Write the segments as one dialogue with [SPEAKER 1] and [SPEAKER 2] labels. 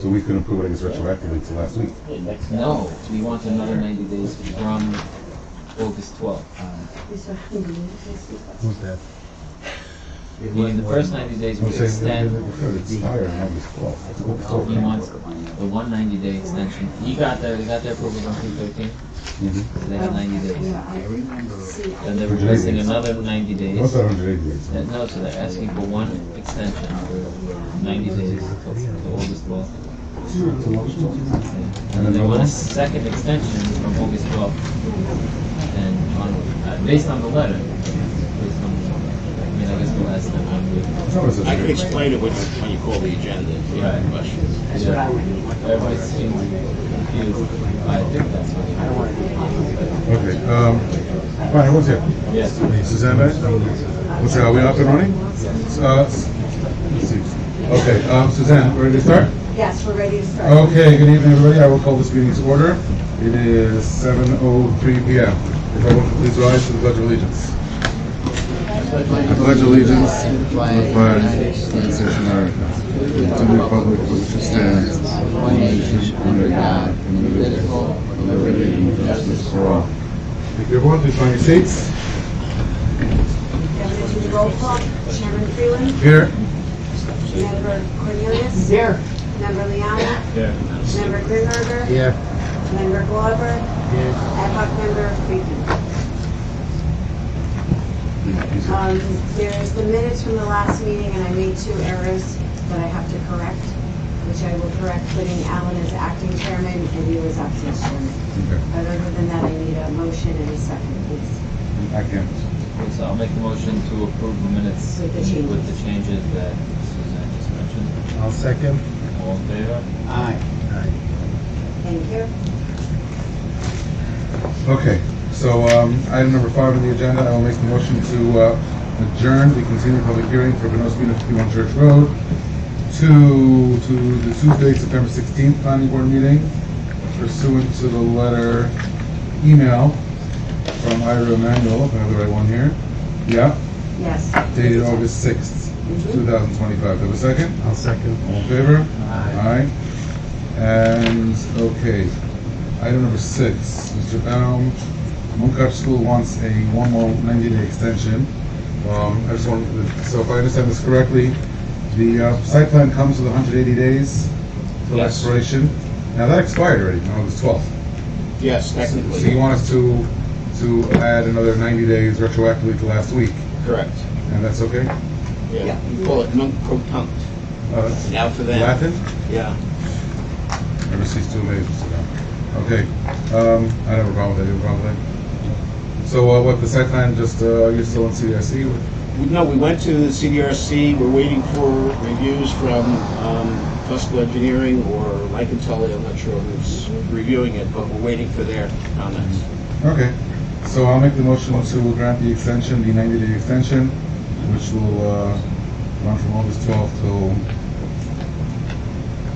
[SPEAKER 1] So we couldn't prove it, I guess, retroactively to last week.
[SPEAKER 2] No, we want another ninety days from August twelfth.
[SPEAKER 1] Uh, Who's that?
[SPEAKER 2] Meaning the first ninety days
[SPEAKER 1] I'm
[SPEAKER 2] we
[SPEAKER 1] saying,
[SPEAKER 2] extend
[SPEAKER 1] that it's higher on August twelfth.
[SPEAKER 2] he wants the one ninety day extension. He got the, he got their approval on three thirteen,
[SPEAKER 1] Mm-hmm.
[SPEAKER 2] so they have ninety days. Then they're requesting another ninety
[SPEAKER 1] What's
[SPEAKER 2] days.
[SPEAKER 1] that hundred eighty days?
[SPEAKER 2] Uh, No, so they're asking for one extension, ninety days till till August twelfth. And then they want a second extension from August twelfth and on, uh, based on the letter. Based on, I mean, I guess the last time I'm
[SPEAKER 1] It's not as if
[SPEAKER 3] I can
[SPEAKER 1] they're-
[SPEAKER 3] explain it when, when you call the agenda, if you have questions.
[SPEAKER 2] Everybody seems confused. I think that's what it
[SPEAKER 1] Okay, um, all right, who's here?
[SPEAKER 2] is. Yes.
[SPEAKER 1] Suzanne, right? what's that, are we up and running? Uh, s- let's see. Okay, um, Suzanne, ready to start?
[SPEAKER 4] Yes, we're ready to start.
[SPEAKER 1] Okay, good evening, everybody. I will call this meeting to order. It is seven oh three P M. If everyone could please rise to the pledge of allegiance. I pledge allegiance to the flag of the United States of America and to the republic for which it stands, one nation under God, indivisible, with liberty and justice for all. If you're wanting to find your seats,
[SPEAKER 4] Now we're gonna do the roll call. Chairman Freeland,
[SPEAKER 1] here.
[SPEAKER 4] Member Cornelius. Here. Member Liana.
[SPEAKER 1] Here.
[SPEAKER 4] Member Grimberger.
[SPEAKER 1] Here.
[SPEAKER 4] Member Glover. Ad hoc member Friedman. Um, There's the minutes from the last meeting, and I made two errors that I have to correct, which I will correct, putting Alan as acting chairman and you as acting chairman.
[SPEAKER 1] Okay,
[SPEAKER 4] But other than that, I need a motion and a second, please.
[SPEAKER 1] I can.
[SPEAKER 2] Okay, So I'll make the motion to approve the minutes
[SPEAKER 4] With the changes.
[SPEAKER 2] with the changes that Suzanne just mentioned.
[SPEAKER 5] I'll second.
[SPEAKER 2] All in favor?
[SPEAKER 4] Thank you.
[SPEAKER 1] Okay, so, um, item number five on the agenda, I will make the motion to, uh, adjourn the continued public hearing for Benoski and fifty-one Church Road to, to the Tuesday, September sixteenth planning board meeting pursuant to the letter, email from Ira Emanuel, if I have the right one here. Yeah,
[SPEAKER 4] Yes.
[SPEAKER 1] dated August sixth,
[SPEAKER 3] Mm-hmm.
[SPEAKER 1] two thousand twenty-five. Do I have a second?
[SPEAKER 5] I'll second.
[SPEAKER 1] All in favor? Aye. And, okay, item number six, Mr. Baum, Munkac School wants a one more ninety-day extension. Um, I just want, so if I understand this correctly, the uh, site plan comes with hundred eighty days till
[SPEAKER 3] Yes.
[SPEAKER 1] expiration. Now, that expired already, on August twelfth.
[SPEAKER 3] Yes,
[SPEAKER 1] So you
[SPEAKER 3] technically,
[SPEAKER 1] want us to, to add another ninety days retroactively to last week,
[SPEAKER 3] correct.
[SPEAKER 1] and that's okay?
[SPEAKER 3] Yeah, you call it non-protunct.
[SPEAKER 1] Uh, that's
[SPEAKER 3] Now for them.
[SPEAKER 1] Latin?
[SPEAKER 3] Yeah.
[SPEAKER 1] Never cease to amaze us. Okay, um, I have a problem with that, you have a problem with that? So, uh, what, the site plan, just, uh, you're still in CDIC?
[SPEAKER 3] We- No, we went to the CDRC, we're waiting for reviews from um, Fusco Engineering or Lycantelli, I'm not sure who's reviewing it, but we're waiting for their comments.
[SPEAKER 1] Okay, so I'll make the motion to grant the extension, the ninety-day extension, which will, uh, run from August twelfth till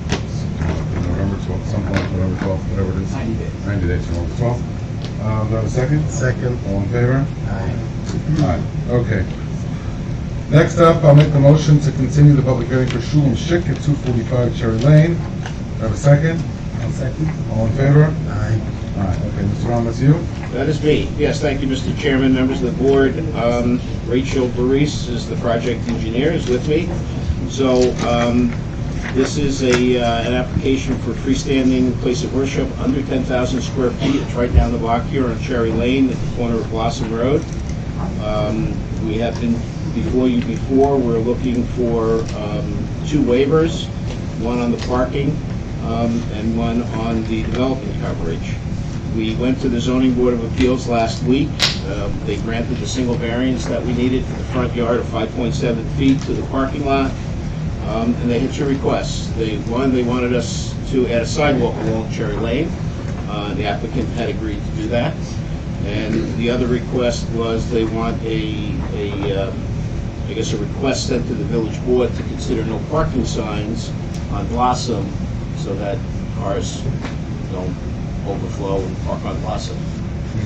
[SPEAKER 1] November twelfth, some point, November twelfth, whatever it is. Ninety days. Ninety days from August twelfth. Uh, do I have a second?
[SPEAKER 5] Second.
[SPEAKER 1] All in favor?
[SPEAKER 5] Aye.
[SPEAKER 1] Aye, okay. Next up, I'll make the motion to continue the public hearing for Shulam Shik at 245 Cherry Lane. Do I have a second?
[SPEAKER 5] I'll second.
[SPEAKER 1] All in favor?
[SPEAKER 5] Aye.
[SPEAKER 1] Aye, okay, Mr. Ram, that's you?
[SPEAKER 3] That is me. Yes, thank you, Mr. Chairman, members of the board. Um, Rachel Baris is the project engineer, is with me. So um, this is a, uh, an application for freestanding place of worship under 10,000 square feet. It's right down the block here on Cherry Lane at the corner of Blossom Road. Um, We have been before you before, we're looking for um, two waivers, one on the parking um, and one on the development coverage. We went to the zoning board of appeals last week. Um, They granted the single variance that we needed for the front yard of 5.7 feet to the parking lot. Um, And they had two requests. They, one, they wanted us to add a sidewalk along Cherry Lane. Uh, The applicant had agreed to do that. And the other request was they want a, a, uh, I guess, a request sent to the village board to consider no parking signs on Blossom so that cars don't overflow and park on Blossom.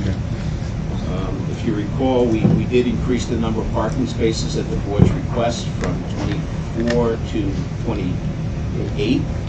[SPEAKER 1] Okay.
[SPEAKER 3] Um, If you recall, we, we did increase the number of parking spaces at the board's request from 24 to 28.